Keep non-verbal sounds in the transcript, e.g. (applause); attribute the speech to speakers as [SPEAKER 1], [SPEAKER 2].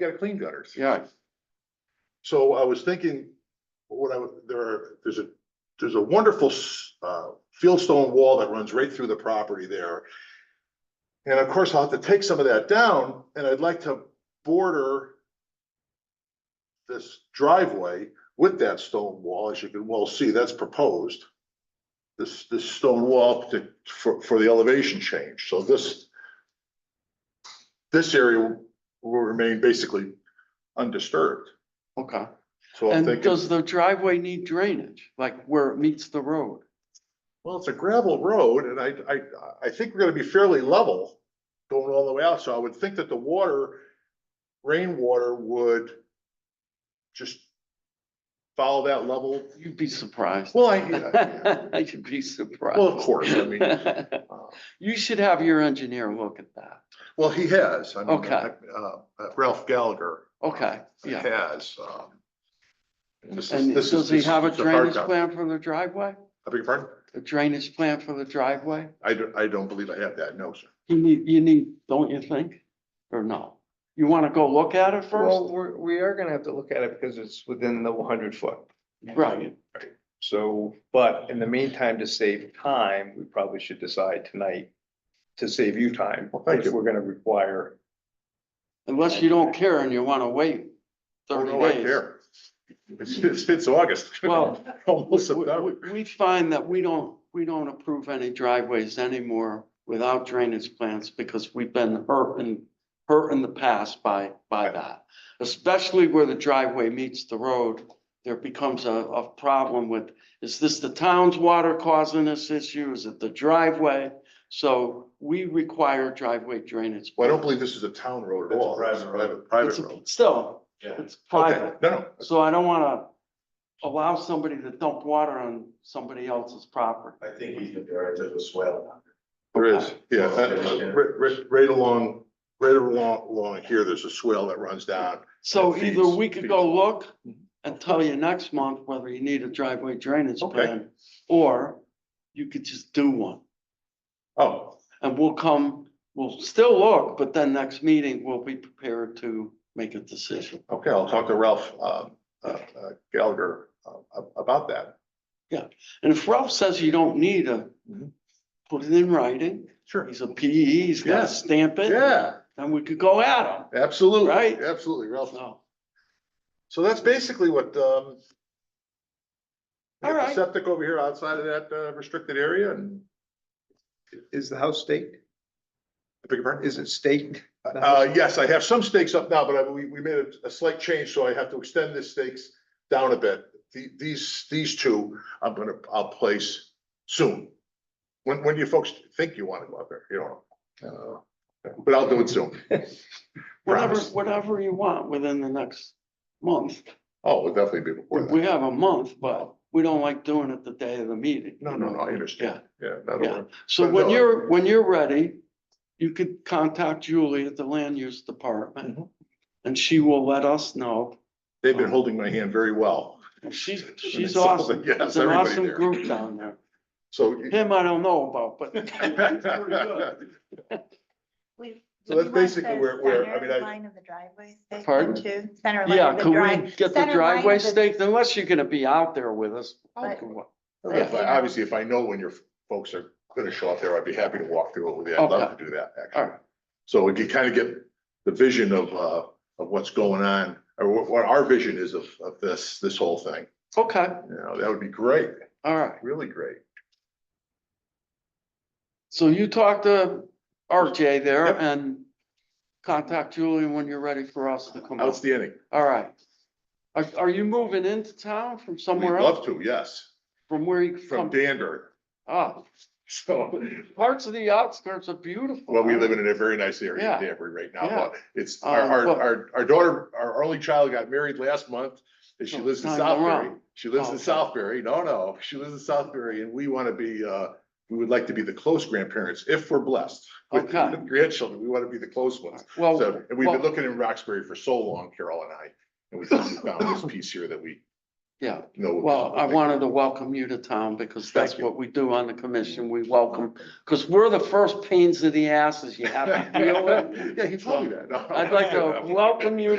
[SPEAKER 1] gotta clean gutters.
[SPEAKER 2] yeah,
[SPEAKER 1] So I was thinking, what I would, there are, there's a, there's a wonderful s- uh, fieldstone wall that runs right through the property there. And of course, I'll have to take some of that down and I'd like to border this driveway with that stone wall, as you can well see, that's proposed. This, this stone wall to, for, for the elevation change. So this this area will remain basically undisturbed.
[SPEAKER 2] okay.
[SPEAKER 1] So I'm
[SPEAKER 2] And
[SPEAKER 1] thinking,
[SPEAKER 2] does the driveway need drainage, like where it meets the road?
[SPEAKER 1] well, it's a gravel road and I, I, I think we're gonna be fairly level going all the way out. So I would think that the water, rainwater would just follow that level.
[SPEAKER 2] You'd be surprised. (laughs)
[SPEAKER 1] Well, I, yeah,
[SPEAKER 2] You'd be surprised.
[SPEAKER 1] well, of course, I mean, uh,
[SPEAKER 2] (laughs) You should have your engineer look at that.
[SPEAKER 1] well, he has. I mean,
[SPEAKER 2] Okay.
[SPEAKER 1] uh, uh, Ralph Gallagher.
[SPEAKER 2] Okay, yeah.
[SPEAKER 1] Has, um. this is-
[SPEAKER 2] And
[SPEAKER 1] this is-
[SPEAKER 2] does he
[SPEAKER 1] this
[SPEAKER 2] have a
[SPEAKER 1] is hard
[SPEAKER 2] drainage
[SPEAKER 1] copy.
[SPEAKER 2] plan for the driveway?
[SPEAKER 1] I beg your pardon?
[SPEAKER 2] A drainage plan for the driveway?
[SPEAKER 1] I don't, I don't believe I have that, no, sir.
[SPEAKER 2] You need, you need, don't you think? Or no? You want to go look at it
[SPEAKER 3] Well,
[SPEAKER 2] first?
[SPEAKER 3] we're, we are gonna have to look at it because it's within the one hundred foot.
[SPEAKER 2] Right,
[SPEAKER 3] So, but in the meantime, to save time, we probably should decide tonight to save you time.
[SPEAKER 1] Well, thank you.
[SPEAKER 3] If we're gonna require,
[SPEAKER 2] unless you don't care and you want to wait
[SPEAKER 1] Oh,
[SPEAKER 2] thirty
[SPEAKER 1] no, I
[SPEAKER 2] days.
[SPEAKER 1] care. It's, it's, it's August.
[SPEAKER 2] Well,
[SPEAKER 1] (laughs) Almost
[SPEAKER 2] We-
[SPEAKER 1] September.
[SPEAKER 2] we- We find that we don't, we don't approve any driveways anymore without drainage plans because we've been hurt in, hurt in the past by, by that. Especially where the driveway meets the road, there becomes a, a problem with, is this the town's water causing this issue? Is it the driveway? So we require driveway drainage.
[SPEAKER 1] Well, I don't believe this is a town road at
[SPEAKER 3] It's a
[SPEAKER 1] all.
[SPEAKER 3] private
[SPEAKER 1] It's a
[SPEAKER 3] road.
[SPEAKER 1] Private
[SPEAKER 2] It's-
[SPEAKER 1] road.
[SPEAKER 2] Still, it's private.
[SPEAKER 1] Okay, no, no,
[SPEAKER 2] So I don't wanna allow somebody to dump water on somebody else's property.
[SPEAKER 4] I think he's the director of the swell.
[SPEAKER 1] there is, yeah, uh, right, right, right along, right along, along here, there's a swell that runs down.
[SPEAKER 2] So
[SPEAKER 1] It
[SPEAKER 2] either
[SPEAKER 1] feeds- Mm-hmm.
[SPEAKER 2] we could go look and tell you next month whether you need a driveway drainage
[SPEAKER 1] Okay.
[SPEAKER 2] plan, or you could just do one.
[SPEAKER 1] Oh,
[SPEAKER 2] And we'll come, we'll still look, but then next meeting, we'll be prepared to make a decision.
[SPEAKER 1] okay, I'll talk to Ralph, um, uh, uh, Gallagher, uh, about that.
[SPEAKER 2] And if Ralph says you don't need a,
[SPEAKER 1] Mhm.
[SPEAKER 2] put it in writing,
[SPEAKER 1] Sure.
[SPEAKER 2] he's a PE, he's
[SPEAKER 1] Yeah.
[SPEAKER 2] gotta stamp it.
[SPEAKER 1] Yeah,
[SPEAKER 2] Then we could go at him,
[SPEAKER 1] absolutely.
[SPEAKER 2] Right.
[SPEAKER 1] Absolutely, Ralph.
[SPEAKER 2] so.
[SPEAKER 1] So that's basically what, um. we
[SPEAKER 2] All
[SPEAKER 1] got the
[SPEAKER 2] right.
[SPEAKER 1] Septic over here outside of that uh, restricted area and,
[SPEAKER 3] is the house staked?
[SPEAKER 1] I beg your pardon?
[SPEAKER 3] Is it staked?
[SPEAKER 1] Uh, yes, I have some stakes up now, but I, we, we made a, a slight change, so I have to extend the stakes down a bit. The, these, these two, I'm gonna, I'll place soon. When, when do you folks think you wanna go out there? You don't know. Uh, But I'll do it soon.
[SPEAKER 2] Whatever,
[SPEAKER 1] Promise.
[SPEAKER 2] whatever you want within the next month.
[SPEAKER 1] Oh, it'll definitely be before
[SPEAKER 2] We
[SPEAKER 1] that.
[SPEAKER 2] have a month, but we don't like doing it the day of the meeting.
[SPEAKER 1] No, no, no, I understand. Yeah, that'll
[SPEAKER 2] Yeah.
[SPEAKER 1] work.
[SPEAKER 2] So
[SPEAKER 1] But
[SPEAKER 2] when
[SPEAKER 1] no.
[SPEAKER 2] you're, when you're ready, you could contact Julie at the land use
[SPEAKER 1] Mm-hmm.
[SPEAKER 2] department. And she will let us know.
[SPEAKER 1] They've been holding my hand very well.
[SPEAKER 2] She's,
[SPEAKER 1] (laughs)
[SPEAKER 2] she's
[SPEAKER 1] So,
[SPEAKER 2] awesome.
[SPEAKER 1] yes,
[SPEAKER 2] It's an
[SPEAKER 1] everybody
[SPEAKER 2] awesome
[SPEAKER 1] there.
[SPEAKER 2] group down there.
[SPEAKER 1] So. (laughs)
[SPEAKER 2] Him, I don't know about, but. he's pretty good.
[SPEAKER 1] So
[SPEAKER 5] We-
[SPEAKER 1] So that's
[SPEAKER 5] would you want
[SPEAKER 1] basically
[SPEAKER 5] the
[SPEAKER 1] where- where- I
[SPEAKER 5] center
[SPEAKER 1] mean, I-
[SPEAKER 5] Line of the driveway. staked
[SPEAKER 2] Pardon?
[SPEAKER 5] into Center line
[SPEAKER 2] Yeah,
[SPEAKER 5] of the
[SPEAKER 2] can
[SPEAKER 5] drive.
[SPEAKER 2] we get
[SPEAKER 5] center
[SPEAKER 2] the
[SPEAKER 5] line of
[SPEAKER 2] driveway
[SPEAKER 5] the-
[SPEAKER 2] staked unless you're gonna be out there with us?
[SPEAKER 5] But-
[SPEAKER 1] if I- Obviously, if I know when your folks are gonna show up there, I'd be happy to walk through it with you. I'd love to do that, actually.
[SPEAKER 2] All right.
[SPEAKER 1] So we can kind of get the vision of, uh, of what's going on, or what, what our vision is of, of this, this whole thing.
[SPEAKER 2] Okay,
[SPEAKER 1] You know, that would be great,
[SPEAKER 2] all right.
[SPEAKER 1] really great.
[SPEAKER 2] So you talk to RJ there
[SPEAKER 1] Yep.
[SPEAKER 2] and contact Julie when you're ready for us to come out.
[SPEAKER 1] Outstanding.
[SPEAKER 2] All right. Are, are you moving into town from
[SPEAKER 1] We'd
[SPEAKER 2] somewhere else?
[SPEAKER 1] love to, yes,
[SPEAKER 2] From where you
[SPEAKER 1] from
[SPEAKER 2] from?
[SPEAKER 1] Danbury.
[SPEAKER 2] Ah,
[SPEAKER 1] So,
[SPEAKER 2] parts of the outskirts are beautiful.
[SPEAKER 1] well, we live in a very nice area in
[SPEAKER 2] Um, Yeah.
[SPEAKER 1] Danbury right now,
[SPEAKER 2] Yeah.
[SPEAKER 1] but it's, our,
[SPEAKER 2] Um,
[SPEAKER 1] our,
[SPEAKER 2] but-
[SPEAKER 1] our, our daughter, our only child got married last month. And she
[SPEAKER 2] Oh, No,
[SPEAKER 1] lives in
[SPEAKER 2] time to
[SPEAKER 1] Southbury.
[SPEAKER 2] run.
[SPEAKER 1] She lives in
[SPEAKER 2] Okay.
[SPEAKER 1] Southbury. No, no, she lives in Southbury and we want to be, uh, we would like to be the close grandparents if we're blessed. with
[SPEAKER 2] Okay.
[SPEAKER 1] (laughs) Grandchildren, we want to be the close ones.
[SPEAKER 2] Well,
[SPEAKER 1] So, and we've been
[SPEAKER 2] well-
[SPEAKER 1] looking in Roxbury for so long, Carol and I, and we finally found
[SPEAKER 2] (laughs)
[SPEAKER 1] this piece here that we
[SPEAKER 2] yeah.
[SPEAKER 1] know.
[SPEAKER 2] Well, I wanted to welcome you to town because that's
[SPEAKER 1] Thank you.
[SPEAKER 2] what we do on the commission. We welcome, because we're the first pains in the asses you have to deal
[SPEAKER 1] (laughs)
[SPEAKER 2] with.
[SPEAKER 1] Yeah, he told me that. No. (laughs)
[SPEAKER 2] I'd like to welcome you to